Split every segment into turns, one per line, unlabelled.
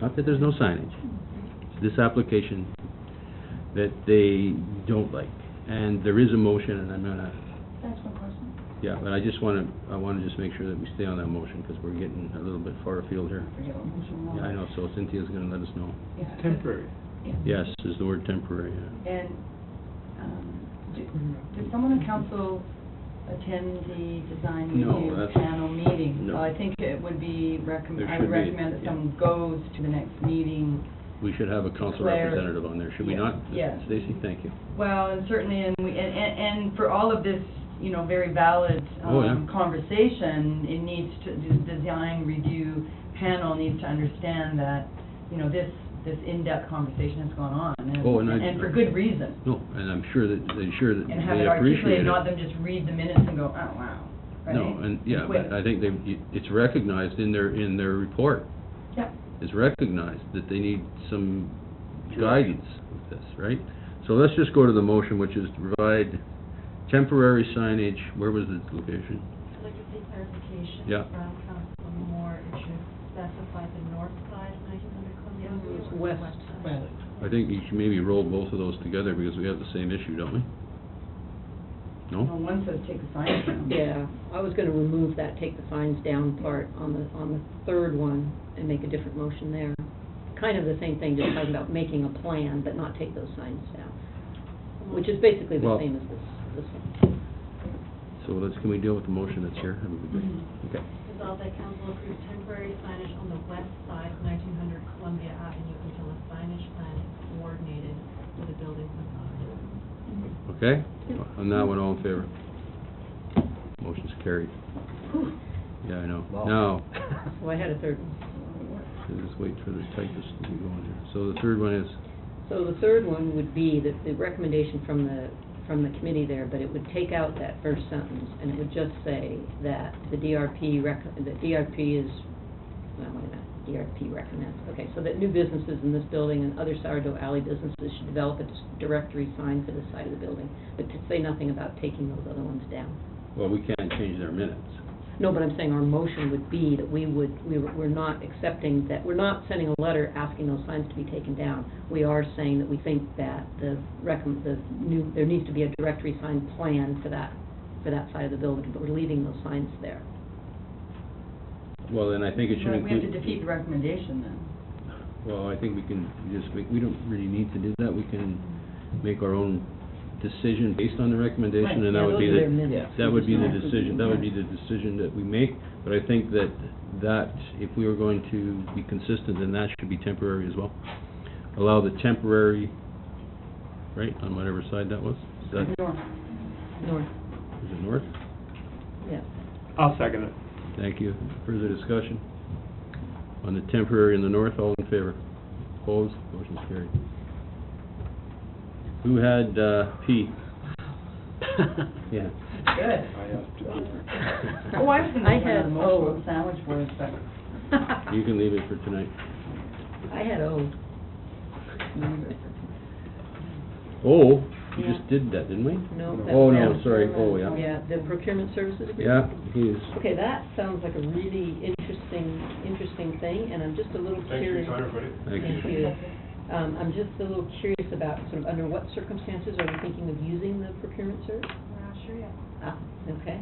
not that there's no signage, it's this application that they don't like. And there is a motion, and I'm gonna,
That's my question.
yeah, but I just wanna, I wanna just make sure that we stay on that motion, because we're getting a little bit far afield here.
Forget what motion was.
Yeah, I know, so Cynthia's gonna let us know.
Yeah.
Temporary.
Yes,
Yeah.
is the word temporary, yeah.
And, um, did, did someone in council attend the design
No,
review
that's-
panel meeting?
no.
So I think it would be
There
recommend, I would
should be,
recommend that
yeah.
someone goes to the next meeting.
We should have a council
Claire.
representative on there, should we
Yeah,
not?
yeah.
Stacy, thank you.
Well, and certainly, and we, and, and and for all of this, you know, very valid,
Oh, yeah.
um, conversation, it needs to, the design review panel needs to understand that, you know, this, this in-depth conversation has gone on,
Oh, and
and,
I-
and for good reason.
No, and I'm sure that, they sure that
and have
they
it
appreciate it.
articulated, not them just read the minutes and go, oh, wow, right?
No, and, yeah,
Wait.
but I think they, it's recognized in their, in their report,
Yeah,
it's recognized that they need some guidance with this, right? So let's just go to the motion, which is to provide temporary signage, where was the location?
I'd like to see clarification
Yeah.
from Council Moore, it should specify the north side of 1900 Columbia Avenue or the
West.
west side?
I think you should maybe roll both of those together, because we have the same issue, don't we?
well,
No?
one says take the sign down.
Yeah, I was gonna remove that, take the signs down part on the, on the third one and make a different motion there. Kind of the same thing, just talking about making a plan, but not take those signs down, which is basically the
Well-
same as this, this one.
So let's, can we deal with the motion that's here? That would be great.
Mhm.
Okay.
Resolve that council approves temporary signage on the west side of 1900 Columbia Avenue until a signage plan is coordinated with the building's authority.
Okay? On that one, all in favor? Motion's carried. Yeah, I know. Now,
So I had a third one.
let's just wait for the typist to be going here. So the third one is,
So the third one would be the, the recommendation from the, from the committee there, but it would take out that first sentence, and it would just say that the DRP rec, that DRP is, well, wait a minute, DRP recommends, okay, so that new businesses in this building and other sourdough alley businesses should develop a dis- directory sign for the side of the building, but to say nothing about taking those other ones down.
well, we can't change their minutes.
No, but I'm saying our motion would be that we would, we were- we're not accepting that, we're not sending a letter asking those signs to be taken down. We are saying that we think that the recom, the new, there needs to be a directory sign plan for that, for that side of the building, but we're leaving those signs there.
Well, then I think it should
But We have to
include...
defeat the recommendation then.
Well, I think we can just, we we don't really need to do that. We can make our own decision based on the recommendation,
Right,
and that
yeah,
would be
those are
the,
their minutes.
that would be the
Yeah.
decision, that would be the decision that we make. But I think that, that if we were going to be consistent, then that should be temporary as well. Allow the temporary, right, on whatever side that was? Is that,
Norm,
North,
is it north?
yeah.
I'll second it.
Thank you. Further discussion? On the temporary in the north, all in favor? Opposed? Motion's carried. Who had, uh, P? Yeah.
good. Oh, I was
You
gonna
I
make another
had-
motion
oh.
with sandwich words, but
can leave it for tonight.
I had O.
Oh, we just did that, didn't we?
No. that's
Oh, no,
down.
sorry, oh, yeah.
Yeah, the procurement services agreement.
Yeah, he is.
Okay, that sounds like a really interesting, interesting thing, and I'm just a little curious.
Thank you.
Thank you. Um, I'm just a little curious about sort of under what circumstances are we thinking of using the procurement service?
We're not sure yet.
Ah, okay.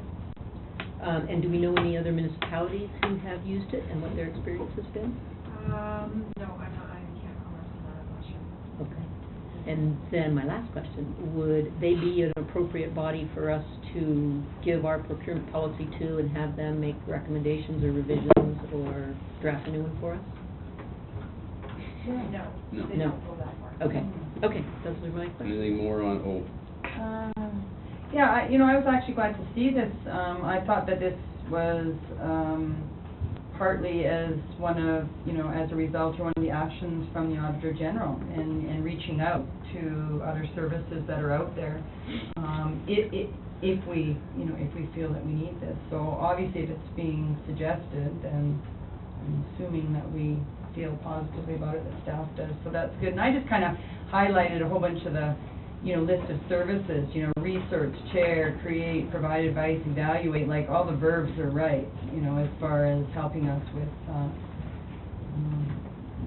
Um, and do we know any other municipalities who have used it and what their experience has been?
Um, no, I'm not, I can't comment on that, I'm not sure.
Okay. And then my last question, would they be an appropriate body for us to give our procurement policy to and have them make recommendations or revisions or draft a new one for us?
No,
No.
they don't go that far.
Okay, okay, those are my questions.
Anything more on oh, O?
Um, Yeah, I, you know, I was actually glad to see this. Um, I thought that this was, um, partly as one of, you know, as a result or one of the actions from the Auditor General in, in reaching out to other services that are out there. Um, i i if we, you know, if we feel that we need this. So obviously if it's being suggested, then I'm assuming that we feel positively about it, that staff does, so that's good. And I just kind of highlighted a whole bunch of the, you know, list of services, you know, research, chair, create, provide advice, evaluate, like, all the verbs are right, you know, as far as helping us with, uh, um,